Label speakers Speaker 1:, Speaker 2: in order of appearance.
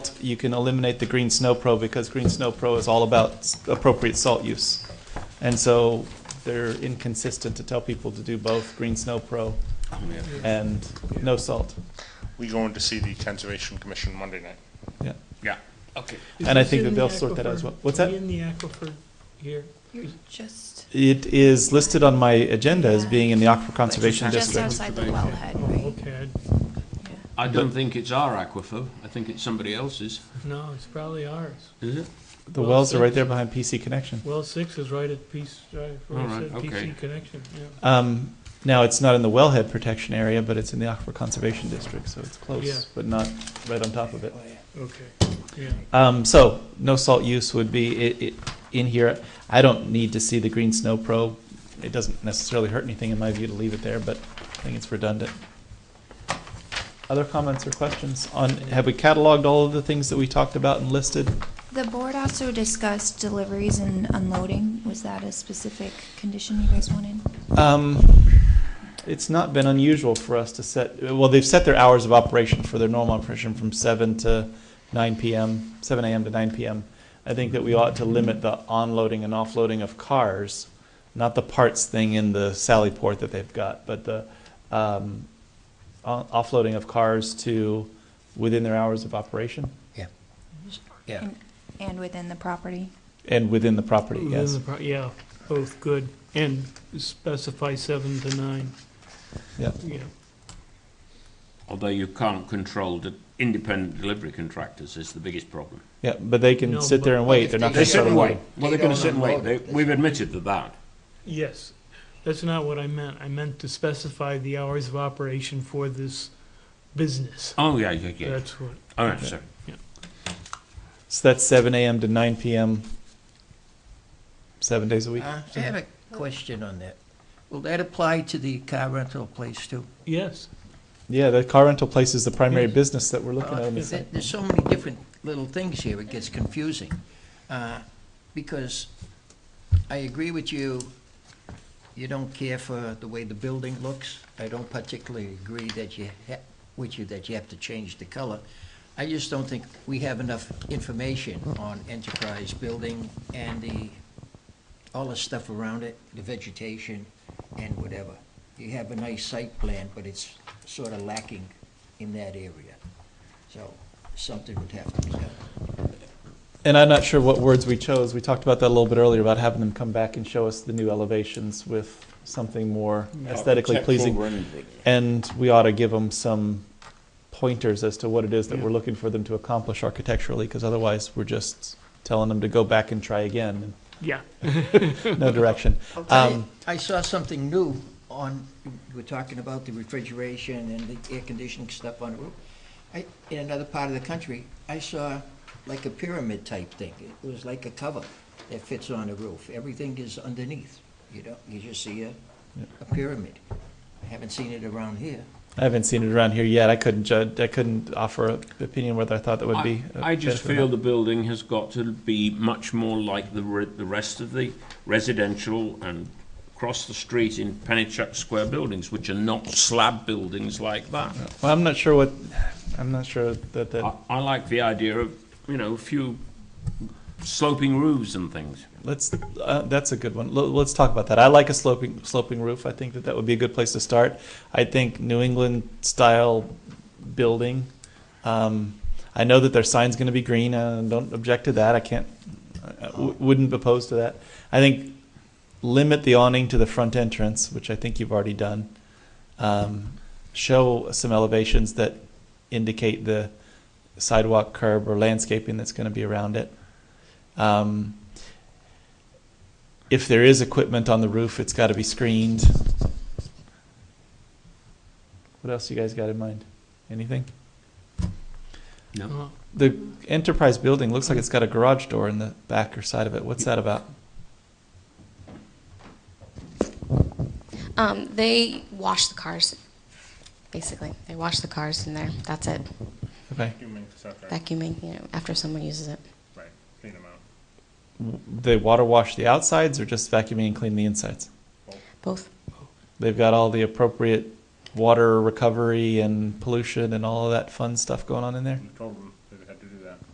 Speaker 1: you can eliminate the Green Snow Pro because Green Snow Pro is all about s- appropriate salt use. And so they're inconsistent to tell people to do both Green Snow Pro and no salt.
Speaker 2: We going to see the Conservation Commission Monday night?
Speaker 1: Yeah.
Speaker 2: Yeah. Okay.
Speaker 3: Is
Speaker 1: And I
Speaker 3: this
Speaker 1: think that
Speaker 3: in the
Speaker 1: they'll sort that out as
Speaker 3: aquifer?
Speaker 1: well. What's
Speaker 3: Are
Speaker 1: that?
Speaker 3: we In the aquifer here,
Speaker 4: You're just,
Speaker 1: It is listed on my agenda as being in the Aquifer Conservation
Speaker 4: you're just
Speaker 1: District.
Speaker 4: outside the wellhead,
Speaker 3: oh,
Speaker 4: right?
Speaker 3: okay,
Speaker 4: Yeah.
Speaker 5: I don't think it's our aquifer. I think it's somebody else's.
Speaker 3: I- no, it's probably ours.
Speaker 5: Is it?
Speaker 1: The wells are right there behind PC Connection.
Speaker 3: Well, six is right at Peace, right, where
Speaker 5: All
Speaker 3: it
Speaker 5: right,
Speaker 3: said
Speaker 5: okay.
Speaker 3: PC connection, yeah.
Speaker 1: Um, now, it's not in the wellhead protection area, but it's in the Aquifer Conservation District, so it's
Speaker 3: Yeah.
Speaker 1: close, but not right on top of it.
Speaker 3: Okay, yeah.
Speaker 1: Um, so no salt use would be i i in here. I don't need to see the green snow probe. It doesn't necessarily hurt anything in my view to leave it there, but I think it's redundant. Other comments or questions on, have we cataloged all of the things that we talked about and listed?
Speaker 4: The board also discussed deliveries and unloading. Was that a specific condition you guys wanted?
Speaker 1: Um, it's not been unusual for us to set, well, they've set their hours of operation for their normal operation from seven to nine PM, seven AM to nine PM. I think that we ought to limit the onloading and offloading of cars, not the parts thing in the Sally Port that they've got, but the, um, o- offloading of cars to within their hours of operation
Speaker 6: Yeah.
Speaker 4: And- And within the property?
Speaker 1: and within the property,
Speaker 3: Within
Speaker 1: yes.
Speaker 3: the pro- Yeah, both good, and specify seven to nine.
Speaker 1: Yeah.
Speaker 3: Yeah,
Speaker 5: Although you can't control the independent delivery contractors is the biggest problem.
Speaker 1: Yeah, but they can
Speaker 3: No,
Speaker 1: sit there
Speaker 3: but-
Speaker 1: and wait, they're not
Speaker 6: They
Speaker 1: gonna
Speaker 5: They sit
Speaker 1: shut
Speaker 5: and
Speaker 1: them
Speaker 5: wait.
Speaker 1: down.
Speaker 5: Well, they're going to sit and wait. They, we've admitted to that.
Speaker 3: yes, that's not what I meant, I meant to specify the hours of operation for this business,
Speaker 5: Oh yeah, yeah, yeah.
Speaker 3: that's what,
Speaker 5: All right, sorry.
Speaker 1: So that's seven AM to nine PM, seven days a week.
Speaker 6: Uh, I have a question on that. Will that apply to the car rental place too?
Speaker 3: yes,
Speaker 1: Yeah, the car rental place is the primary
Speaker 3: Yes.
Speaker 1: business that we're looking at. on
Speaker 6: Uh,
Speaker 1: the site.
Speaker 6: there- There's so many different little things here, it gets confusing. Uh, Because I agree with you, you don't care for the way the building looks. I don't particularly agree that you, ha- with you, that you have to change the color. I just don't think we have enough information on Enterprise Building and the, all the stuff around it, the vegetation and whatever. You have a nice site plan, but it's sort of lacking in that area. So something would have to be done.
Speaker 1: And I'm not sure what words we chose. We talked about that a little bit earlier about having them come back and show us the new elevations with something more aesthetically pleasing. And we ought to give them some pointers as to what it is that
Speaker 3: Yeah.
Speaker 1: we're looking for them to accomplish architecturally, because otherwise we're just telling them to go back and try again
Speaker 3: yeah.
Speaker 1: in no direction.
Speaker 6: I'll tell you,
Speaker 1: Um,
Speaker 6: I saw something new on, you were talking about the refrigeration and the air conditioning stuff on the roof. I, in another part of the country, I saw like a pyramid type thing. It was like a cover that fits on the roof. Everything is underneath, you know, you just see a, a pyramid. I haven't seen it around here.
Speaker 1: I haven't seen it around here yet. I couldn't judge, I couldn't offer an opinion whether I thought that would be. uh, a
Speaker 5: I, I just
Speaker 1: benefit or
Speaker 5: feel
Speaker 1: not.
Speaker 5: the building has got to be much more like the re- the rest of the residential and across the street in Pennachuck Square buildings, which are not slab buildings like that.
Speaker 1: Well, I'm not sure what, I'm not sure that, that,
Speaker 5: I, I like the idea of, you know, a few sloping roofs and things.
Speaker 1: let's, uh, that's a good one. L- Let's talk about that. I like a sloping, sloping roof. I think that that would be a good place to start. I think New England style building. Um, I know that their sign's gonna be green. I don't object to that. I can't, I- I w- wouldn't oppose to that. I think limit the awning to the front entrance, which I think you've already done. Um, show some elevations that indicate the sidewalk curb or landscaping that's going to be around it. Um, if there is equipment on the roof, it's got to be screened. What else you guys got in mind? Anything?
Speaker 3: Uh,
Speaker 1: The enterprise building looks like it's got a garage door in the back or side of it. What's that about?
Speaker 7: Um, they wash the cars, basically. They wash the cars in there. That's it.
Speaker 1: Okay.
Speaker 2: Human stuff, right?
Speaker 7: Vacuuming, you know, after someone uses it.
Speaker 2: Right, clean them out.
Speaker 1: They water wash the outsides or just vacuuming and clean the insides?
Speaker 7: Both.
Speaker 1: They've got all the appropriate water recovery and pollution and all of that fun stuff going on in there.
Speaker 2: We told them